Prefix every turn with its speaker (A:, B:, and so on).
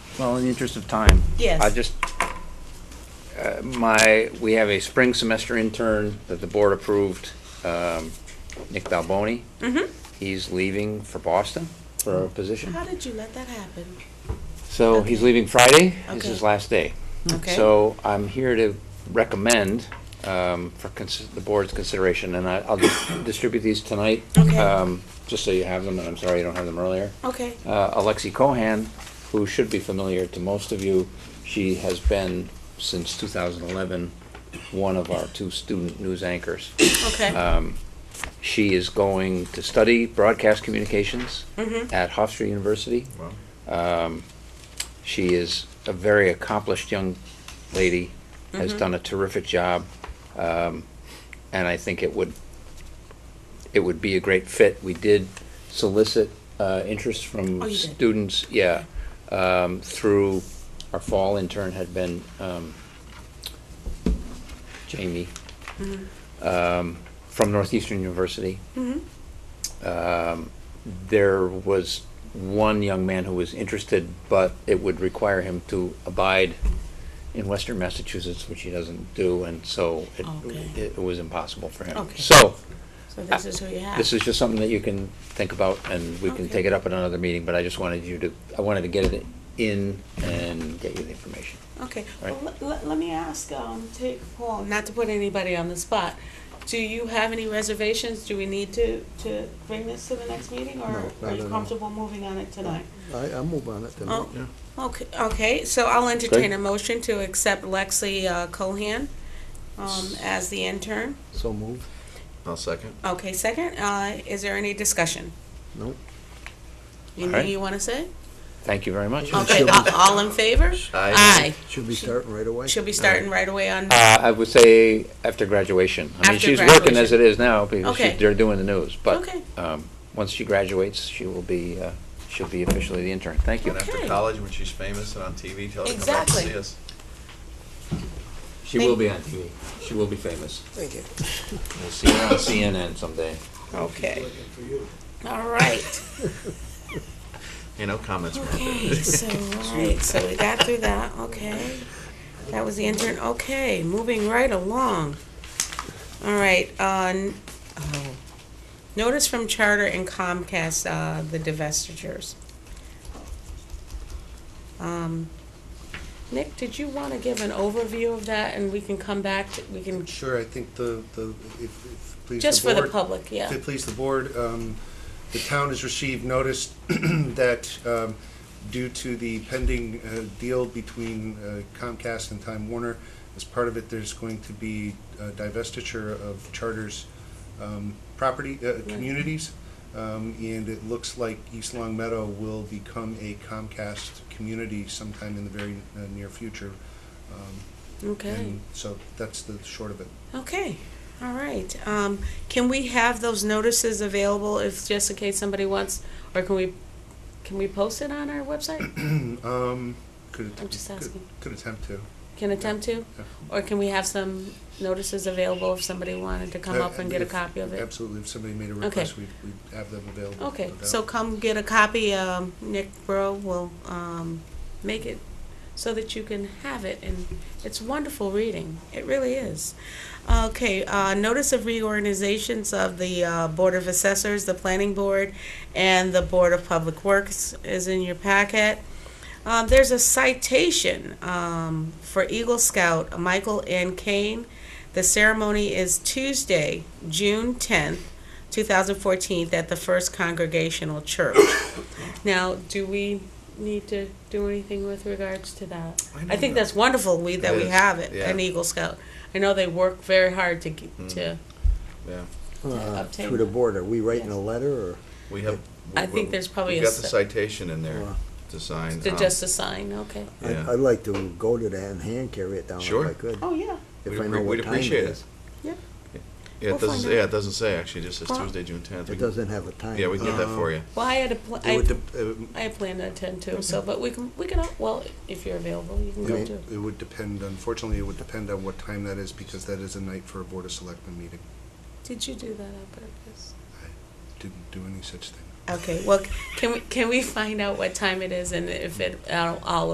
A: Well, in the interest of time,
B: Yes.
C: I just, uh, my, we have a spring semester intern that the board approved, um, Nick Balboni.
B: Mm-hmm.
C: He's leaving for Boston for a position.
B: How did you let that happen?
C: So he's
B: Uh-huh. Okay.
C: leaving Friday, is his
B: Okay.
C: last day.
B: Okay.
C: So I'm here to recommend um, for cons- the board's consideration, and I- I'll just distribute these tonight.
B: Okay.
C: um, Just so you have them, and I'm sorry you don't have them earlier.
B: Okay.
C: Uh, Alexi Cohan, who should be familiar to most of you, she has been, since 2011, one of our two student news anchors.
B: Okay.
C: Um, She is going to study broadcast communications
B: Mm-hmm.
C: at Hofstra University. Um, She is a very accomplished young lady,
B: Mm-hmm.
C: has done a terrific job, um, and I think it would, it would be a great fit. We did solicit uh, interest
B: Oh,
C: from
B: you did?
C: students, yeah, um, through, our fall intern had been um, Jamie um, from Northeastern University.
B: Mm-hmm.
C: Um, There was one young man who was interested, but it would require him to abide in Western Massachusetts, which he doesn't do, and so it-
B: Okay.
C: it was impossible for him.
B: Okay.
C: So,
B: So this is who you have.
C: this is just something that you can think about, and we can
B: Okay.
C: take it up at another meeting, but I just wanted you to, I wanted to get it in and get you the information.
B: Okay.
C: Right.
B: Well, let, let, let me ask, um, take Paul, not to put anybody on the spot. Do you have any reservations? Do we need to, to bring this to the next meeting
D: No,
B: or
D: not
B: are
D: at
B: you
D: all.
B: comfortable moving on it tonight?
D: I, I move on it tonight.
B: Oh, okay, okay. So I'll entertain
C: Great.
B: a motion to accept Lexi uh, Cohan, um, as the intern.
D: So move.
E: I'll second.
B: Okay, second, uh, is there any discussion?
D: Nope.
B: Anything
C: Alright.
B: you wanna say?
C: Thank you very much.
D: Sure.
B: Okay,
D: She'll be-
B: a- all in favor?
E: Aye.
D: Should be starting right away.
B: She'll be starting right away on,
C: Uh, I would say after graduation. I mean,
B: After
C: she's working as it
B: graduation.
C: is now because she-
B: Okay.
C: they're doing the news. But
B: Okay.
C: um, once she graduates, she will be, uh, she'll be officially the intern. Thank you.
E: And after
B: Okay.
E: college, when she's famous and on TV, tell her to come back and
B: Exactly.
E: see us.
C: She
B: will
C: be on TV. She will be famous.
B: thank you.
C: We'll see her on CNN someday.
B: Okay. All right.
E: You know, comments. were-
B: Okay, so, all right, so we got through that, okay. That was the intern, okay, moving right along. All right, on, oh, notice from Charter and Comcast, uh, the divestitures. Um, Nick, did you wanna give an overview of that and we can come back, to- we can,
F: Sure, I think the, the, if, if, please.
B: just for the
F: board-
B: public, yeah.
F: If it please the board, um, the town has received notice that, um, due to the pending, uh, deal between uh, Comcast and Time Warner, as part of it, there's going to be uh, divestiture of charters, um, property, uh, communities. Um, and it looks like East Long Meadow will become a Comcast community sometime in the very uh, near future. Um,
B: Okay,
F: and so that's the short of it.
B: okay, all right. Um, can we have those notices available if, just in case somebody wants, or can we, can we post it on our website?
F: Um, could.
B: I'm just
F: could-
B: asking.
F: Could attempt to.
B: Can attempt to?
F: Yeah.
B: Or can we have some notices available if somebody wanted to come
F: Uh,
B: up and get a
F: if-
B: copy of it?
F: Absolutely, if somebody made a
B: Okay.
F: request, we'd, we'd have them available.
B: Okay,
F: no doubt.
B: so come get a copy, um, Nick Burrow will, um, make it so that you can have it, and it's wonderful reading, it really is. Okay, uh, notice of reorganizations of the, uh, Board of Assessors, the Planning Board, and the Board of Public Works is in your packet. Um, there's a citation, um, for Eagle Scout Michael N. Kane. The ceremony is Tuesday, June tenth, 2014 at the First Congregational Church. now, do we need to do anything with regards to that?
E: I don't
B: I think
E: know.
B: that's wonderful we, that
E: It
B: we
E: is,
B: have it,
E: yeah.
B: an Eagle Scout. I know they work very hard to get, to.
E: Yeah,
D: Uh,
B: obtain
D: Through the
B: that.
D: board, are we writing
B: Yes.
D: a letter or?
E: we have.
B: I think there's probably
E: We've
B: a
E: got the
B: s-
E: citation in there
D: Wow.
E: to sign.
B: To
E: um,
B: just assign, okay.
D: I'd-
E: Yeah.
D: I'd like to go to that and hand carry it down if
E: Sure.
D: I could.
B: Oh, yeah.
D: If
E: We'd
D: I
E: appre-
D: know
E: we'd
D: what time it
E: appreciate it.
D: is.
E: Yeah,
B: We'll
E: it doesn't,
B: find out.
E: yeah, it doesn't say, actually, it just says
B: Well, Oh.
E: Tuesday, June tenth.
D: It doesn't have a time.
E: Yeah, we can get that for you.
B: Well, I had a pl-
D: It would
B: I,
D: dep- it would-
B: I plan to attend too, so, but we can, we can, all- well, if you're available, you can
F: It
B: go
F: would-
B: too.
F: It would depend, unfortunately, it would depend on what time that is, because that is a night for a Board of Selectmen meeting.
B: Did you do that on purpose?
F: Didn't do any such thing.
B: Okay, well, can we, can we find out what time it is and if it, I'll, I'll